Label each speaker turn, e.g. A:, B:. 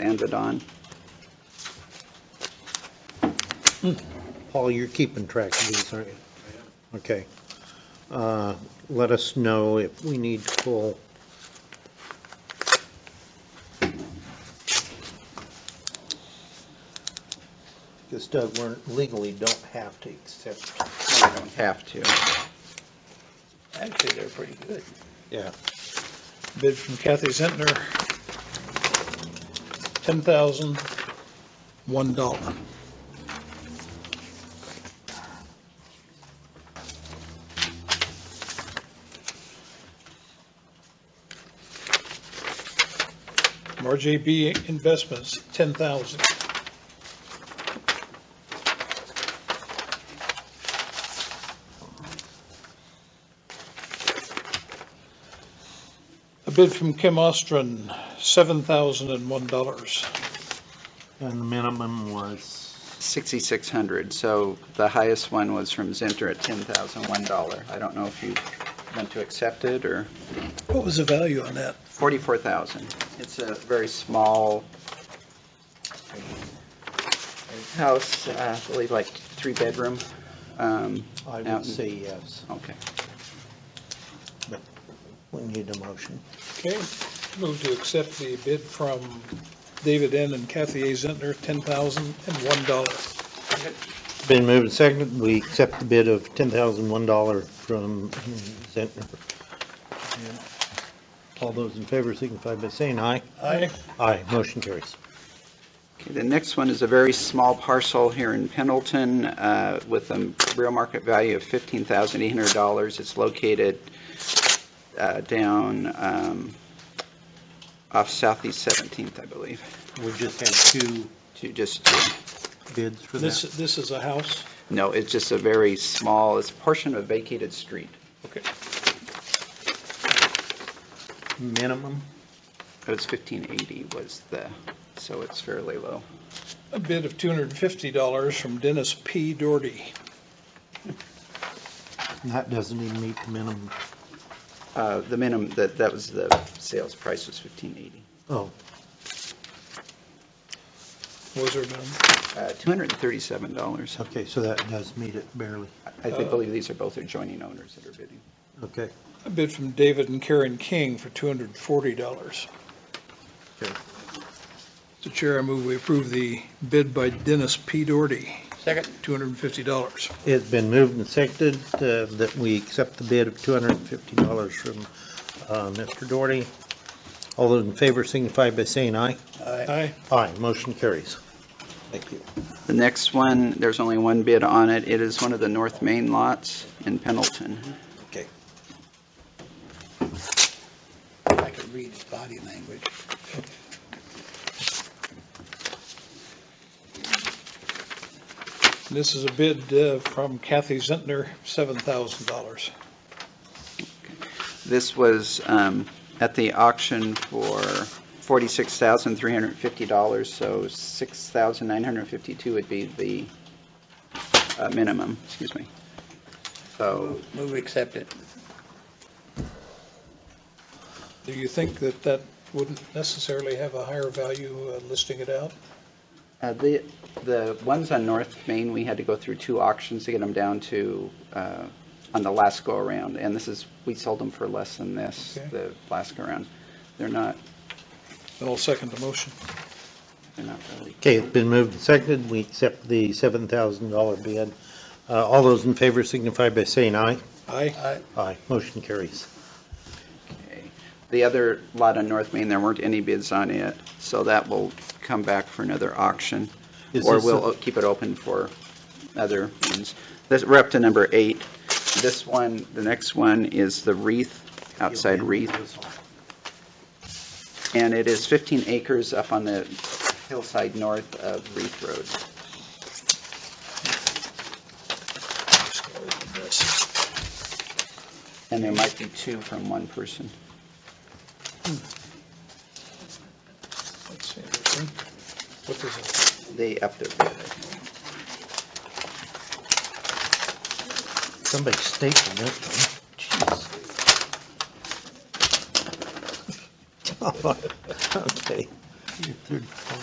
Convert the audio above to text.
A: ended on.
B: Paul, you're keeping track of these, aren't you? Okay. Uh, Let us know if we need to pull. Because Doug, we're legally don't have to accept,
A: We don't have to.
C: Actually, they're pretty good.
B: Yeah.
C: Bid from Kathy Zentner, ten thousand, one dollar. RJB Investments, ten thousand. A bid from Kim Ostron, seven thousand and one dollars.
B: and the minimum was,
A: 6,600, so the highest one was from Zinter at $10,001. I don't know if you want to accept it, or
C: What was the value on that?
A: 44,000. It's a very small um, house, uh, I believe like three-bedroom. Um,
B: I
A: Out in-
B: would say yes,
A: Okay,
B: we need a motion.
C: Okay, move to accept the bid from David N. and Kathy A. Zentner, $10,001.
B: Been moved and seconded, we accept the bid of $10,001 from Zentner. All those in favor signify by saying aye.
C: Aye.
B: Aye, motion carries.
A: Okay, the next one is a very small parcel here in Pendleton uh, with a real market value of $15,800. It's located uh, down um, off Southeast 17th, I believe,
B: We just had two
A: to just,
B: bids for
C: This,
B: that.
C: this is a house?
A: no, it's just a very small, it's a portion of a vacated street.
B: Minimum?
A: It was 1580 was the, so it's fairly low.
C: A bid of $250 from Dennis P. Doherty.
B: That doesn't even meet the minimum.
A: Uh, The minimum, that, that was the sales price was 1580.
B: Oh,
C: Was there none?
A: Uh, $237.
B: okay, so that does meet it barely.
A: I think- believe these are both adjoining owners that are bidding.
B: Okay.
C: A bid from David and Karen King for $240.
B: Okay.
C: Mr. Chair, I move we approve the bid by Dennis P. Doherty,
A: Second.
C: $250.
B: It's been moved and seconded uh, that we accept the bid of $250 from uh, Mr. Doherty. All those in favor signify by saying aye.
C: Aye.
B: Aye, motion carries. Thank you.
A: The next one, there's only one bid on it. It is one of the North Main lots in Pendleton.
D: I could read his body language.
C: This is a bid uh, from Kathy Zentner, $7,000.
A: This was um, at the auction for $46,350, so $6,952 would be the uh, minimum, excuse me. So
D: Move, we accept it.
C: Do you think that that wouldn't necessarily have a higher value uh, listing it out?
A: uh, the, the ones on North Main, we had to go through two auctions to get them down to, uh, on the last go-around, and this is, we sold them for less than this,
C: Okay.
A: the last go-around. They're not,
C: Then I'll second the motion.
A: they're not really
B: Okay, it's been moved and seconded, we accept the $7,000 bid. Uh, All those in favor signify by saying aye.
C: Aye.
B: Aye, motion carries.
A: Okay. The other lot on North Main, there weren't any bids on it, so that will come back for another auction,
B: Is
A: or
B: this a-
A: we'll o- keep it open for other ones. This, we're up to number eight. This one, the next one is the wreath, outside wreath, and it is 15 acres up on the hillside north of Wreath Road. And there might be two from one person.
C: That's interesting. What is it?
A: They upped their bid. I think.
B: Somebody stapled that one. Jeez. Okay.